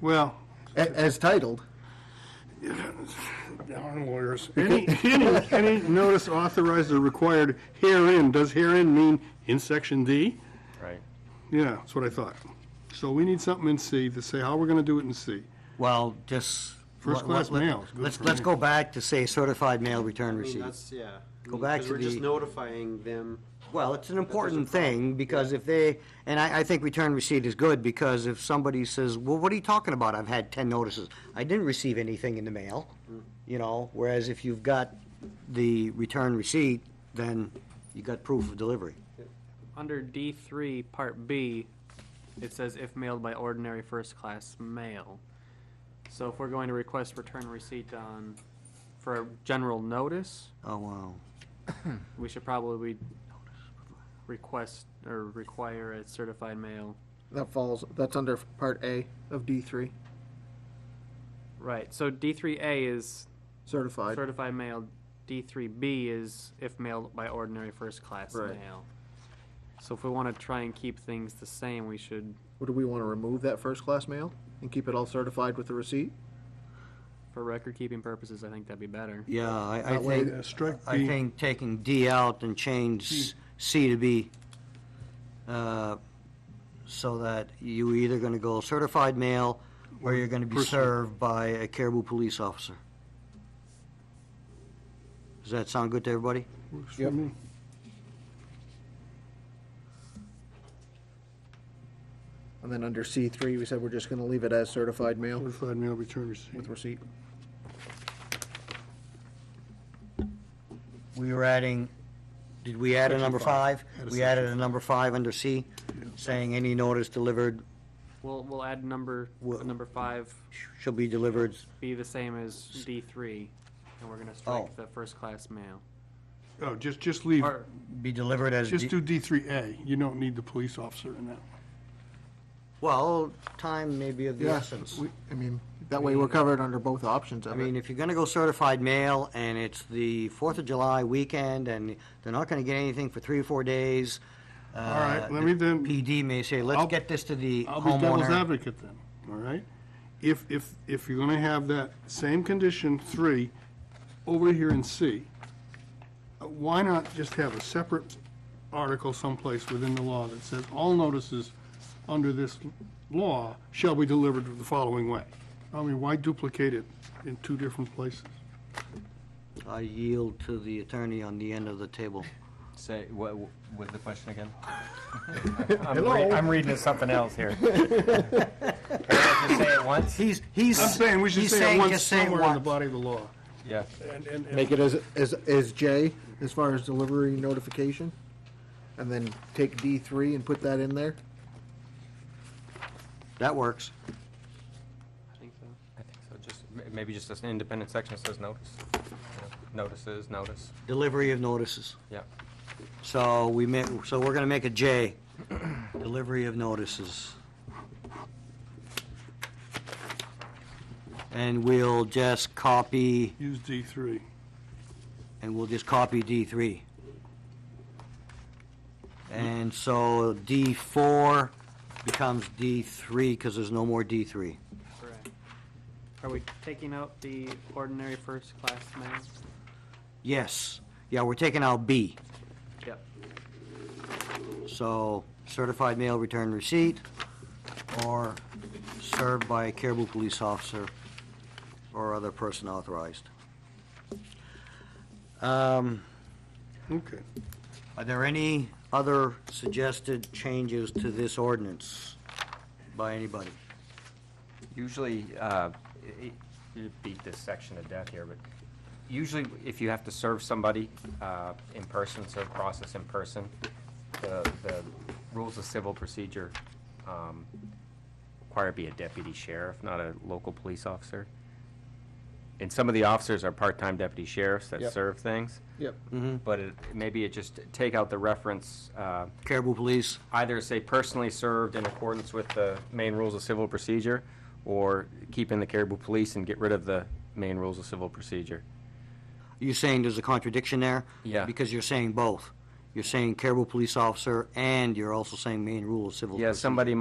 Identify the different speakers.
Speaker 1: Well,
Speaker 2: a- as titled.
Speaker 1: darn lawyers. Any, any, any notice authorized or required herein, does herein mean in section D?
Speaker 3: Right.
Speaker 1: Yeah, that's what I thought. So we need something in C to say how we're gonna do it in C.
Speaker 4: Well, just.
Speaker 1: First
Speaker 4: let-
Speaker 1: class
Speaker 4: let-
Speaker 1: mail is good
Speaker 4: Let's,
Speaker 1: for
Speaker 4: let's
Speaker 1: me.
Speaker 4: go back to say certified mail return
Speaker 5: I mean,
Speaker 4: receipt.
Speaker 5: That's, yeah.
Speaker 4: Go back to
Speaker 5: Because we're just
Speaker 4: the-
Speaker 5: notifying them.
Speaker 4: Well, it's an
Speaker 5: there's a
Speaker 4: important
Speaker 5: problem.
Speaker 4: thing, because if they, and I, I think return receipt is good, because if somebody says, well, what are you talking about? I've had ten notices. I didn't receive anything in the mail, you know, whereas if you've got the return receipt, then you got proof of delivery.
Speaker 6: Under D three, part B, it says if mailed by ordinary first class mail. So if we're going to request return receipt on, for a general notice,
Speaker 4: Oh, wow.
Speaker 6: we should probably request or require a certified mail.
Speaker 2: That falls, that's under part A of D three,
Speaker 6: Right, so D three A is
Speaker 2: certified.
Speaker 6: certified mail, D three B is if mailed by ordinary first class
Speaker 2: Right.
Speaker 6: mail. So if we wanna try and keep things the same, we should,
Speaker 2: Or do we want to remove that first class mail and keep it all certified with the receipt?
Speaker 6: for record keeping purposes, I think that'd be better.
Speaker 4: Yeah, I, I
Speaker 2: That way,
Speaker 4: think,
Speaker 1: Yeah, uh, Strike
Speaker 4: I
Speaker 1: B.
Speaker 4: think taking D out and change C to B, uh, so that you either gonna go certified mail, or you're gonna be
Speaker 1: Personal.
Speaker 4: served by a Caribou police officer. Does that sound good to everybody?
Speaker 1: Works for me.
Speaker 2: And then under C three, we said we're just going to leave it as certified mail
Speaker 1: Certified mail return receipt.
Speaker 2: with receipt.
Speaker 4: We were adding, did we add a
Speaker 1: Section
Speaker 4: number
Speaker 1: five.
Speaker 4: five?
Speaker 1: Add a
Speaker 4: We
Speaker 1: section
Speaker 4: added a number five under C, saying any notice delivered
Speaker 6: We'll, we'll add number,
Speaker 4: Well-
Speaker 6: number five,
Speaker 4: shall be delivered,
Speaker 6: be the same as D three, and we're gonna
Speaker 4: Oh.
Speaker 6: strike the first class mail.
Speaker 1: Oh, just, just leave,
Speaker 6: Or,
Speaker 4: be delivered as.
Speaker 1: just
Speaker 4: D-
Speaker 1: do D three A. You don't need the police officer in that.
Speaker 4: Well, time may be of the
Speaker 2: Yeah,
Speaker 4: essence.
Speaker 2: we- I mean, that way we're covered under both options
Speaker 4: I
Speaker 2: of
Speaker 4: mean,
Speaker 2: it.
Speaker 4: if you're gonna go certified mail, and it's the Fourth of July weekend, and they're not gonna get anything for three or four days. uh, All
Speaker 1: right, let me then-
Speaker 4: PD may say, let's
Speaker 1: I'll-
Speaker 4: get this to the
Speaker 1: I'll be devil's
Speaker 4: homeowner.
Speaker 1: advocate then, all right? If, if, if you're gonna have that same condition, three, over here in C, uh, why not just have a separate article someplace within the law that says all notices under this law shall be delivered the following way? I mean, why duplicate it in two different places?
Speaker 4: I yield to the attorney on the end of the table.
Speaker 3: Say, what, with the question again? I'm re- I'm reading something else here. Can I Just say it once?
Speaker 4: He's, he's.
Speaker 1: I'm saying we should
Speaker 4: he's
Speaker 1: say it
Speaker 4: saying
Speaker 1: once
Speaker 4: just say it
Speaker 1: somewhere in the
Speaker 4: once.
Speaker 1: body of the law.
Speaker 3: Yeah.
Speaker 1: And, and, and-
Speaker 2: Make it as, as, as J, as far as delivery notification, and then take D three and put that in there.
Speaker 4: That works.
Speaker 6: I think so.
Speaker 3: I think so, just, m- maybe just an independent section that says notice. You know, Notices, notice,
Speaker 4: Delivery of notices.
Speaker 3: yeah.
Speaker 4: So we ma, so we're gonna make a J, delivery of notices. And we'll just copy,
Speaker 1: use D three.
Speaker 4: and we'll just copy D3. And so D4 becomes D3 because there's no more D3.
Speaker 6: Correct. Are we taking out the ordinary first class mail?
Speaker 4: Yes, yeah, we're taking out B.
Speaker 6: Yep.
Speaker 4: So certified mail return receipt or served by a Caribou police officer or other person authorized. Um,
Speaker 1: Okay.
Speaker 4: Are there any other suggested changes to this ordinance by anybody?
Speaker 3: Usually, uh, it- it- beat this section to death here, but usually if you have to serve somebody uh, in person, serve process in person, the, the rules of civil procedure um, require be a deputy sheriff, not a local police officer. And some of the officers are part-time deputy sheriffs that
Speaker 2: Yep.
Speaker 3: serve things,
Speaker 2: Yep.
Speaker 3: but it, maybe it just, take out the reference, uh,
Speaker 4: Caribou police?
Speaker 3: either say personally served in accordance with the main rules of civil procedure, or keep in the Caribou Police and get rid of the main rules of civil procedure.
Speaker 4: You're saying there's a contradiction there?
Speaker 3: Yeah.
Speaker 4: Because you're saying both. You're saying Caribou police officer, and you're also saying main rule of civil
Speaker 3: Yeah,
Speaker 4: procedure.
Speaker 3: somebody